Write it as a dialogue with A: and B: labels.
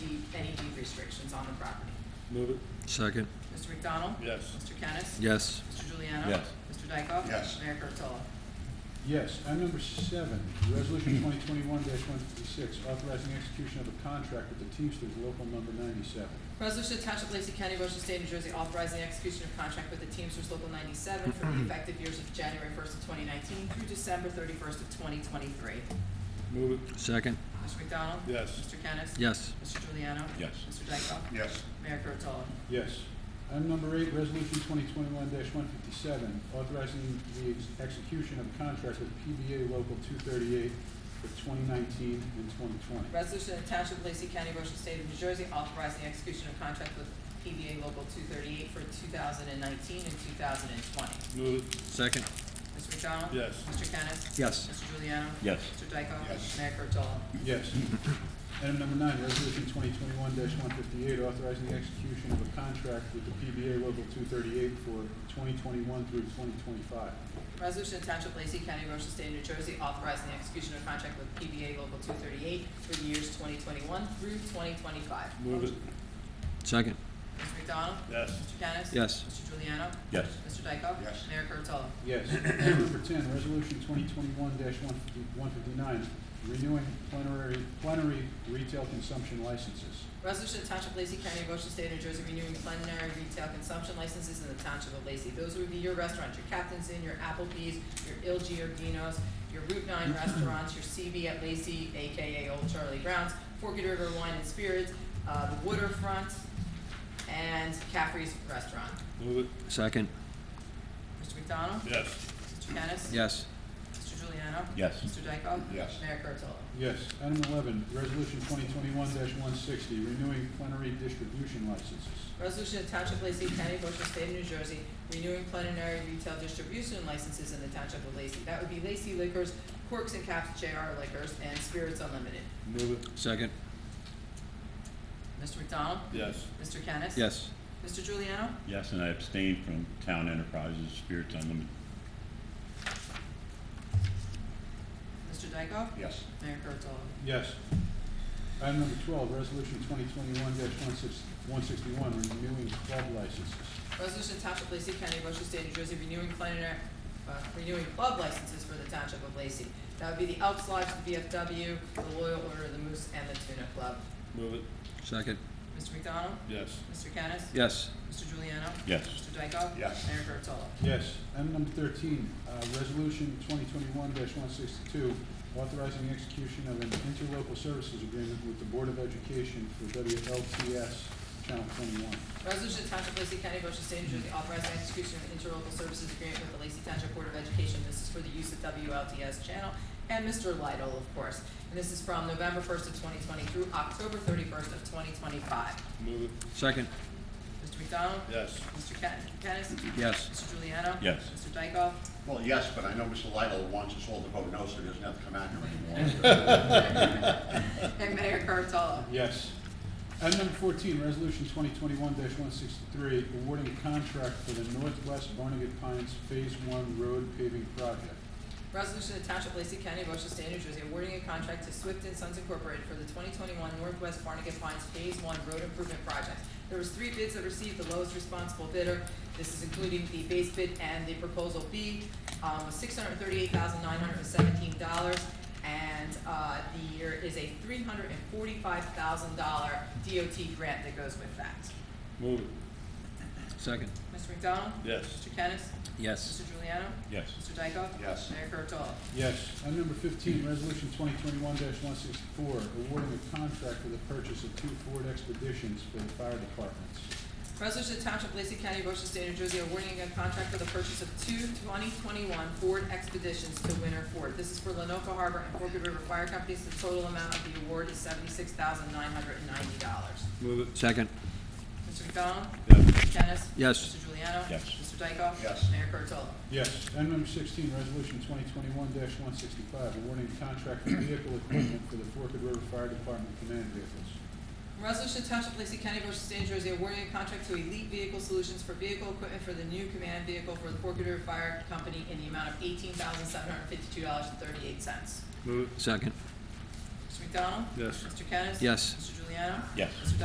A: restrictions on the property.
B: Move it.
C: Second.
A: Mr. McDonald?
B: Yes.
A: Mr. Kennis?
C: Yes.
A: Mr. Juliano?
C: Yes.
A: Mr. Dykoff?
D: Yes.
A: Mayor Kurtolo?
E: Yes. Item number seven, Resolution twenty twenty-one one fifty-six, authorizing execution of a contract with the Teamsters Local Number ninety-seven.
A: Resolution to Township of Lacey County, Ocean State, New Jersey, authorizing the execution of contract with the Teamsters Local 97 for the effective years of January 1st of 2019 through December 31st of 2023.
B: Move it.
C: Second.
A: Mr. McDonald?
B: Yes.
A: Mr. Kennis?
C: Yes.
A: Mr. Juliano?
D: Yes.
A: Mr. Dykoff?
D: Yes.
A: Mayor Kurtolo?
E: Yes. Item number eight, Resolution twenty twenty-one one fifty-seven, authorizing the ex- execution of a contract with PBA Local two thirty-eight for twenty nineteen and twenty twenty.
A: Resolution of Township of Lacey County, Ocean State of New Jersey, authorizing the execution of contract with PBA Local 238 for 2019 and 2020.
B: Move it.
C: Second.
A: Mr. McDonald?
B: Yes.
A: Mr. Kennis?
C: Yes.
A: Mr. Juliano?
C: Yes.
A: Mr. Dykoff?
D: Yes.
A: Mayor Kurtolo?
E: Yes. Item number nine, resolution twenty twenty-one one fifty-eight, authorizing the execution of a contract with the PBA Local two thirty-eight for twenty twenty-one through twenty twenty-five.
A: Resolution to Township of Lacey County, Ocean State of New Jersey, authorizing the execution of contract with PBA Local 238 for the years 2021 through 2025.
B: Move it.
C: Second.
A: Mr. McDonald?
B: Yes.
A: Mr. Kennis?
C: Yes.
A: Mr. Juliano?
C: Yes.
A: Mr. Dykoff?
D: Yes.
A: Mayor Kurtolo?
E: Yes. Item number ten, resolution twenty twenty-one one fifty-nine, renewing plenary, plenary retail consumption licenses.
A: Resolution to Township of Lacey County, Ocean State of New Jersey, renewing culinary retail consumption licenses in the Township of Lacey. Those would be your restaurants, your Captain's Inn, your Applebee's, your Il Giardino's, your Route Nine restaurants, your CB at Lacey, AKA Old Charlie Brown's, Forked River Wine and Spirits, uh, the Waterfront, and Caffrey's Restaurant.
B: Move it.
C: Second.
A: Mr. McDonald?
B: Yes.
A: Mr. Kennis?
C: Yes.
A: Mr. Juliano?
D: Yes.
A: Mr. Dykoff?
D: Yes.
A: Mayor Kurtolo?
E: Yes. Item eleven, resolution twenty twenty-one one sixty, renewing plenary distribution licenses.
A: Resolution of Township of Lacey County, Ocean State of New Jersey, renewing culinary retail distribution licenses in the Township of Lacey. That would be Lacey Liquors, Corks and Caps JR Liquors, and Spirits Unlimited.
B: Move it.
C: Second.
A: Mr. McDonald?
B: Yes.
A: Mr. Kennis?
C: Yes.
A: Mr. Juliano?
F: Yes, and I abstain from Town Enterprises Spirits Unlimited.
A: Mr. Dykoff?
D: Yes.
A: Mayor Kurtolo?
E: Yes. Item number twelve, resolution twenty twenty-one one sixty-one, renewing club licenses.
A: Resolution of Township of Lacey County, Ocean State, New Jersey, renewing culinary, uh, renewing club licenses for the Township of Lacey. That would be the Elks Lodge, the VFW, the Loyal Order of the Moose, and the Tuna Club.
B: Move it.
C: Second.
A: Mr. McDonald?
B: Yes.
A: Mr. Kennis?
C: Yes.
A: Mr. Juliano?
F: Yes.
A: Mr. Dykoff?
D: Yes.
A: Mayor Kurtolo?
E: Yes. Item number thirteen, uh, resolution twenty twenty-one one sixty-two, authorizing the execution of an interlocal services agreement with the Board of Education for WLTS Channel twenty-one.
A: Resolution to Township of Lacey County, Ocean State, New Jersey, authorizing execution of interlocal services agreement with the Lacey Township Board of Education. This is for the use of WLTS channel and Mr. Lidle, of course. And this is from November first of twenty twenty through October thirty-first of twenty twenty-five.
B: Move it.
C: Second.
A: Mr. McDonald?
B: Yes.
A: Mr. Ken- Kennis?
C: Yes.
A: Mr. Juliano?
F: Yes.
A: Mr. Dykoff?
D: Well, yes, but I know Mr. Lidle wants us all to vote no, so he doesn't have to come out here anymore.
A: And Mayor Kurtolo?
E: Yes. Item number fourteen, resolution twenty twenty-one one sixty-three, awarding contract for the Northwest Barnegat Pines Phase One Road Paving Project.
A: Resolution to Township of Lacey County, Ocean State, New Jersey, awarding a contract to Swift and Sons Incorporated for the twenty twenty-one Northwest Barnegat Pines Phase One Road Improvement Project. There was three bids that received the lowest responsible bidder. This is including the base bid and the proposal B, um, six hundred thirty-eight thousand nine hundred seventeen dollars. And, uh, the year is a three hundred and forty-five thousand dollar DOT grant that goes with that.
B: Move it.
C: Second.
A: Mr. McDonald?
B: Yes.
A: Mr. Kennis?
C: Yes.
A: Mr. Juliano?
F: Yes.
A: Mr. Dykoff?
D: Yes.
A: Mayor Kurtolo?
E: Yes. Item number fifteen, resolution twenty twenty-one one sixty-four, awarding a contract for the purchase of two Ford Expeditions for the fire departments.
A: Resolution to Township of Lacey County, Ocean State, New Jersey, awarding a contract for the purchase of two 2021 Ford Expeditions to Winter Ford. This is for Lenoka Harbor and Forked River Fire Companies. The total amount of the award is $76,990.
B: Move it.
C: Second.
A: Mr. McDonald?
B: Yes.
A: Mr. Kennis?
C: Yes.
A: Mr. Juliano?
F: Yes.
A: Mr. Dykoff?
D: Yes.
A: Mayor Kurtolo?
E: Yes. Item number sixteen, resolution twenty twenty-one one sixty-five, awarding a contract for vehicle equipment for the Forked River Fire Department command vehicles.
A: Resolution to Township of Lacey County, Ocean State, New Jersey, awarding a contract to Elite Vehicle Solutions for vehicle equipment for the new command vehicle for the Forked River Fire Company in the amount of $18,752.38.
B: Move it.
C: Second.
A: Mr. McDonald?
B: Yes.
A: Mr. Kennis?
C: Yes.
A: Mr. Juliano?
F: Yes.
A: Mr.